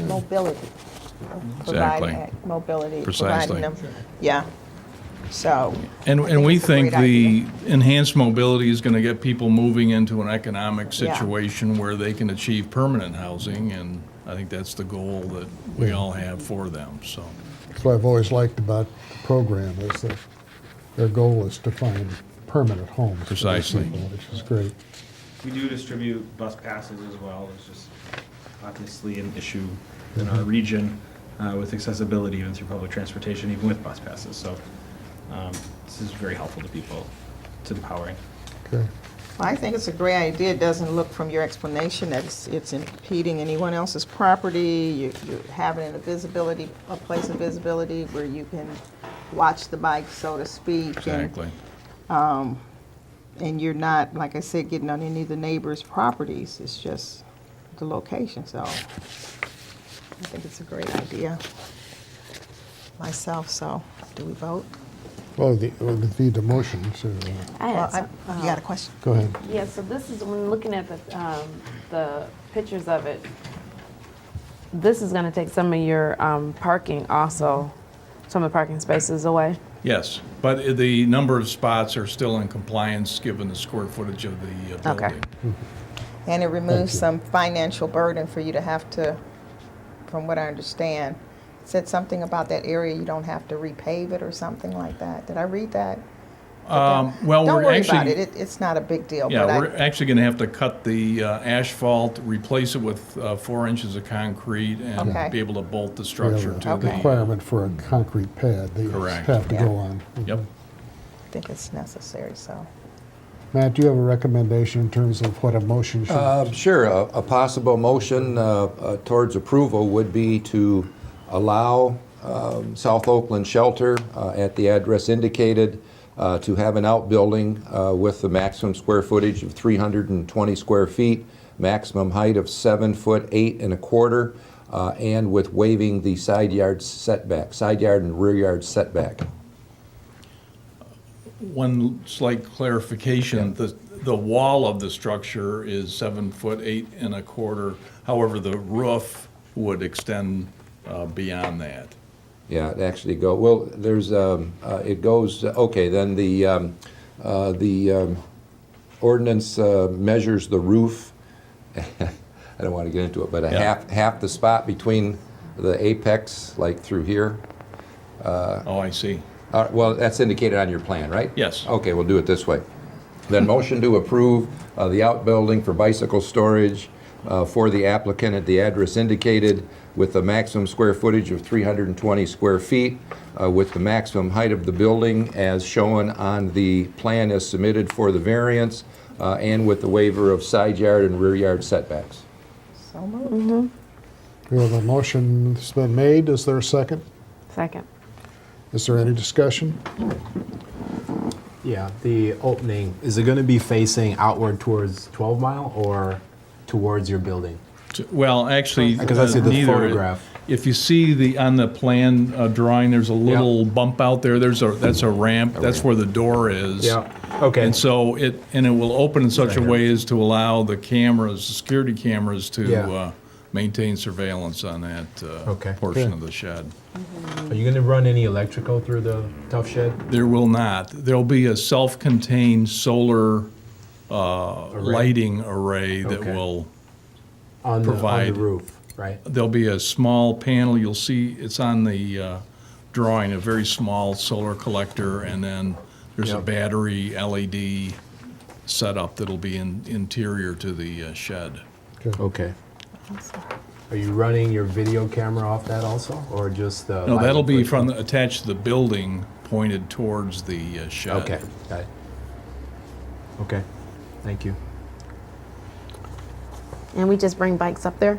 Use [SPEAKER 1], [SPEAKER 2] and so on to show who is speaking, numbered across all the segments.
[SPEAKER 1] mobility.
[SPEAKER 2] Exactly.
[SPEAKER 1] Providing Mobility.
[SPEAKER 2] Precisely.
[SPEAKER 1] providing them- Yeah, so.
[SPEAKER 2] And,
[SPEAKER 1] I
[SPEAKER 2] and we
[SPEAKER 1] it's a great
[SPEAKER 2] think
[SPEAKER 1] idea.
[SPEAKER 2] the enhanced mobility is going to get people moving into an economic
[SPEAKER 1] Yeah.
[SPEAKER 2] situation where they can achieve permanent housing, and I think that's the goal that we all have for them, so.
[SPEAKER 3] That's what I've always liked about the program is that their goal is to find permanent homes. for these
[SPEAKER 2] Precisely.
[SPEAKER 3] people, Which is great.
[SPEAKER 4] We do distribute bus passes as well. It's just obviously an issue in our region uh, with accessibility even through public transportation, even with bus passes. So um, this is very helpful to people. It's empowering.
[SPEAKER 3] Okay.
[SPEAKER 1] I think it's a great idea. It doesn't look from your explanation that it's, it's impeding anyone else's property. You, you have it in a visibility, a place of visibility where you can watch the bike, so to speak. and-
[SPEAKER 2] Exactly.
[SPEAKER 1] And you're not, like I said, getting on any of the neighbors' properties. It's just the location, so I think it's a great idea. Myself, so, do we vote?
[SPEAKER 3] Well, the, well, the, the motion, so, uh,
[SPEAKER 5] I
[SPEAKER 1] Well,
[SPEAKER 5] had
[SPEAKER 1] I-
[SPEAKER 5] some- um,
[SPEAKER 1] You got a question?
[SPEAKER 3] go ahead.
[SPEAKER 5] Yeah, so this is, when looking at the, um, the pictures of it, this is gonna take some of your, um, parking also, some of the parking spaces away.
[SPEAKER 2] Yes, but i- the number of spots are still in compliance, given the square footage of the uh,
[SPEAKER 5] Okay.
[SPEAKER 2] building.
[SPEAKER 1] And it removes some financial burden for you to have to, from what I understand, it said something about that area, you don't have to repave it or something like that. Did I read that?
[SPEAKER 2] Um, Well,
[SPEAKER 1] Don't
[SPEAKER 2] we're
[SPEAKER 1] worry about it,
[SPEAKER 2] actually,
[SPEAKER 1] It- it's not a big deal,
[SPEAKER 2] yeah,
[SPEAKER 1] but
[SPEAKER 2] we're
[SPEAKER 1] I,
[SPEAKER 2] actually going to have to cut the uh, asphalt, replace it with uh, four inches of concrete,
[SPEAKER 1] Okay.
[SPEAKER 2] and be able to bolt the
[SPEAKER 3] We have
[SPEAKER 2] structure
[SPEAKER 3] a
[SPEAKER 2] to the.
[SPEAKER 3] Requirement for a concrete pad that you
[SPEAKER 2] Correct.
[SPEAKER 3] have to
[SPEAKER 1] Yeah.
[SPEAKER 3] go on.
[SPEAKER 2] Yep.
[SPEAKER 1] think it's necessary, so.
[SPEAKER 3] Matt, do you have a recommendation in terms of what a motion should?
[SPEAKER 6] Uh, Sure, a a possible motion uh, uh, towards approval would be to allow um, South Oakland Shelter uh, at the address indicated uh, to have an outbuilding uh, with the maximum square footage of 320 square feet, maximum height of seven foot eight and a quarter, uh, and with waiving the side yard setback, side yard and rear yard setback.
[SPEAKER 2] One slight clarification, the, the wall of the structure is seven foot eight and a quarter. However, the roof would extend uh, beyond that.
[SPEAKER 6] Yeah, it actually go, well, there's, um, uh, it goes, okay, then the, um, uh, the um, ordinance uh, measures the roof. I don't want to get into it, but a
[SPEAKER 2] Yeah.
[SPEAKER 6] half, half the spot between the apex, like through here.
[SPEAKER 2] Oh, I see.
[SPEAKER 6] Uh, Well, that's indicated on your plan, right?
[SPEAKER 2] Yes.
[SPEAKER 6] Okay, we'll do it this way. Then motion to approve uh, the outbuilding for bicycle storage uh, for the applicant at the address indicated with a maximum square footage of 320 square feet, uh, with the maximum height of the building as shown on the plan as submitted for the variance, uh, and with the waiver of side yard and rear yard setbacks.
[SPEAKER 1] So moved.
[SPEAKER 3] We have a motion that's been made. Is there a second?
[SPEAKER 5] Second.
[SPEAKER 3] Is there any discussion?
[SPEAKER 7] Yeah, the opening, is it going to be facing outward towards 12 Mile or towards your building?
[SPEAKER 2] T- Well, actually,
[SPEAKER 7] Because I see
[SPEAKER 2] uh,
[SPEAKER 7] the
[SPEAKER 2] neither.
[SPEAKER 7] photograph.
[SPEAKER 2] If you see the, on the plan uh, drawing, there's a little bump out there, there's a, that's a ramp, that's where the door is.
[SPEAKER 7] Okay,
[SPEAKER 2] And so it, and it will open in such a way as to allow the cameras, the security cameras to
[SPEAKER 7] Yeah.
[SPEAKER 2] uh, maintain surveillance on that uh,
[SPEAKER 7] Okay.
[SPEAKER 2] portion
[SPEAKER 3] Good.
[SPEAKER 2] of the shed.
[SPEAKER 7] are you going to run any electrical through the tough shed?
[SPEAKER 2] There will not. There'll be a self-contained solar uh, lighting array that
[SPEAKER 7] Okay.
[SPEAKER 2] will,
[SPEAKER 7] On the, on the
[SPEAKER 2] Provide.
[SPEAKER 7] roof, right?
[SPEAKER 2] there'll be a small panel, you'll see, it's on the uh, drawing, a very small solar collector, and then there's a
[SPEAKER 7] Yep.
[SPEAKER 2] battery LED setup that'll be in- interior to the uh, shed.
[SPEAKER 7] Okay. Are you running your video camera off that also, or just the?
[SPEAKER 2] No,
[SPEAKER 7] lighting
[SPEAKER 2] that'll be
[SPEAKER 7] portion?
[SPEAKER 2] from, the- attached to the building, pointed towards the uh, shed.
[SPEAKER 7] Okay, got it. Okay, thank you.
[SPEAKER 5] And we just bring bikes up there?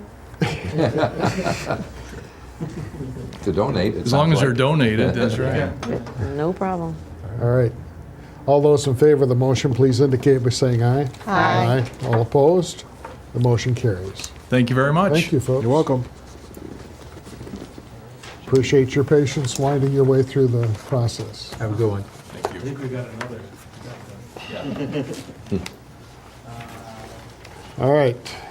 [SPEAKER 6] To donate, it
[SPEAKER 2] As long
[SPEAKER 6] sounds
[SPEAKER 2] as they're
[SPEAKER 6] like.
[SPEAKER 2] donated, that's right.
[SPEAKER 5] No problem.
[SPEAKER 3] All right. All those in favor of the motion, please indicate by saying aye.
[SPEAKER 1] Aye.
[SPEAKER 3] All opposed? The motion carries.
[SPEAKER 2] Thank you very much.
[SPEAKER 3] Thank you, folks.
[SPEAKER 7] You're welcome.
[SPEAKER 3] Appreciate your patience winding your way through the process.
[SPEAKER 7] Have a good one.
[SPEAKER 4] I think we've got another.
[SPEAKER 3] All right.